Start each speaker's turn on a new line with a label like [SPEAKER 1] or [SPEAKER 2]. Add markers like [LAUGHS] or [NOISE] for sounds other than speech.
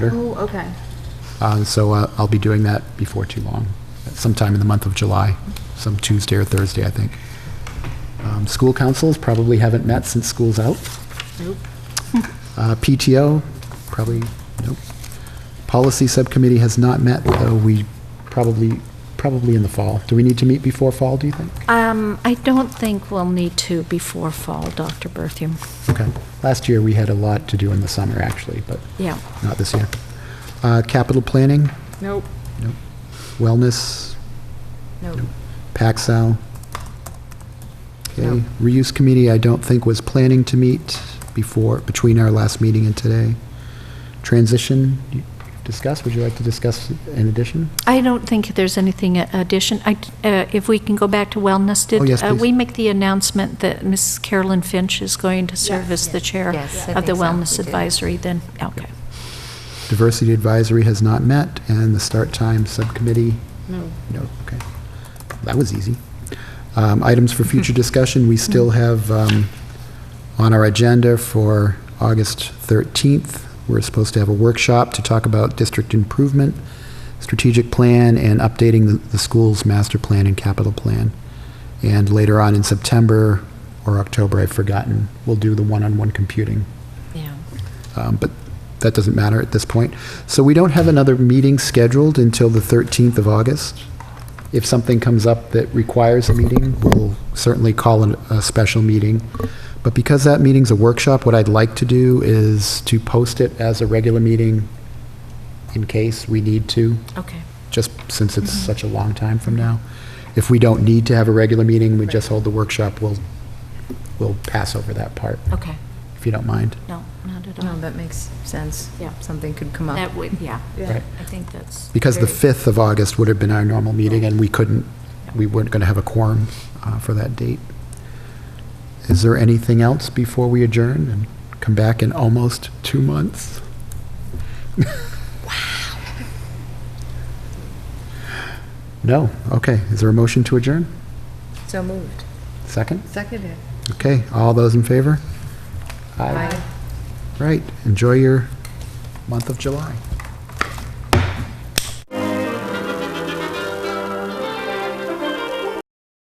[SPEAKER 1] Oh, okay.
[SPEAKER 2] Uh, So uh, I'll be doing that before too long, sometime in the month of July, some Tuesday or Thursday, I think. Um, School councils probably haven't met since school's out.
[SPEAKER 1] Nope.
[SPEAKER 2] Uh, PTO, probably, nope. Policy Subcommittee has not met, though we probably, probably in the fall. Do we need to meet before fall, do you think?
[SPEAKER 3] Um, I don't think we'll need to before fall, Dr. Berthium.
[SPEAKER 2] Okay. Last year, we had a lot to do in the summer, actually, but
[SPEAKER 3] Yeah.
[SPEAKER 2] not this year. Uh, Capital Planning,
[SPEAKER 1] Nope.
[SPEAKER 2] Wellness,
[SPEAKER 1] Nope.
[SPEAKER 2] Paxel. Okay,
[SPEAKER 1] No.
[SPEAKER 2] reuse committee, I don't think was planning to meet before, between our last meeting and today. Transition, you discuss, would you like to discuss in addition?
[SPEAKER 3] I don't think there's anything a- addition. I, uh, if we can go back to wellness, did
[SPEAKER 2] Oh, yes,
[SPEAKER 3] uh,
[SPEAKER 2] please.
[SPEAKER 3] we make the announcement that Mrs. Carolyn Finch is going to serve as the chair
[SPEAKER 4] Yes, I
[SPEAKER 3] of the
[SPEAKER 4] think so.
[SPEAKER 3] Wellness
[SPEAKER 4] We did.
[SPEAKER 3] Advisory then? Okay.
[SPEAKER 2] Diversity advisory has not met, and the start time subcommittee,
[SPEAKER 1] No.
[SPEAKER 2] no, okay. That was easy. Um, Items for future discussion, we still have um, on our agenda for August 13th, we're supposed to have a workshop to talk about district improvement, strategic plan, and updating the- the school's master plan and capital plan. And later on in September or October, I've forgotten, we'll do the one-on-one computing.
[SPEAKER 3] Yeah.
[SPEAKER 2] Um, But that doesn't matter at this point. So we don't have another meeting scheduled until the 13th of August. If something comes up that requires a meeting, we'll certainly call an- a special meeting. But because that meeting's a workshop, what I'd like to do is to post it as a regular meeting in case we need to,
[SPEAKER 3] Okay.
[SPEAKER 2] just since it's such a long time from now. If we don't need to have a regular meeting, we just hold the workshop, we'll, we'll pass over that part,
[SPEAKER 3] Okay.
[SPEAKER 2] if you don't mind.
[SPEAKER 3] No, not at
[SPEAKER 4] No, uh,
[SPEAKER 3] all.
[SPEAKER 4] Oh, that makes sense.
[SPEAKER 3] Yeah.
[SPEAKER 4] Something could come up.
[SPEAKER 3] That would, yeah.
[SPEAKER 1] Yeah.
[SPEAKER 2] Right.
[SPEAKER 3] I think that's.
[SPEAKER 2] Because the
[SPEAKER 3] very-
[SPEAKER 2] 5th of August would have been our normal meeting, and we couldn't, we weren't going to have a quorum uh, for that date. Is there anything else before we adjourn and come back in almost two months? [LAUGHS] No? Okay. Is there a motion to adjourn?
[SPEAKER 4] So moved.
[SPEAKER 2] Second?
[SPEAKER 4] Seconded.
[SPEAKER 2] Okay. All those in favor?
[SPEAKER 4] Aye.
[SPEAKER 2] Right. Enjoy your month of July.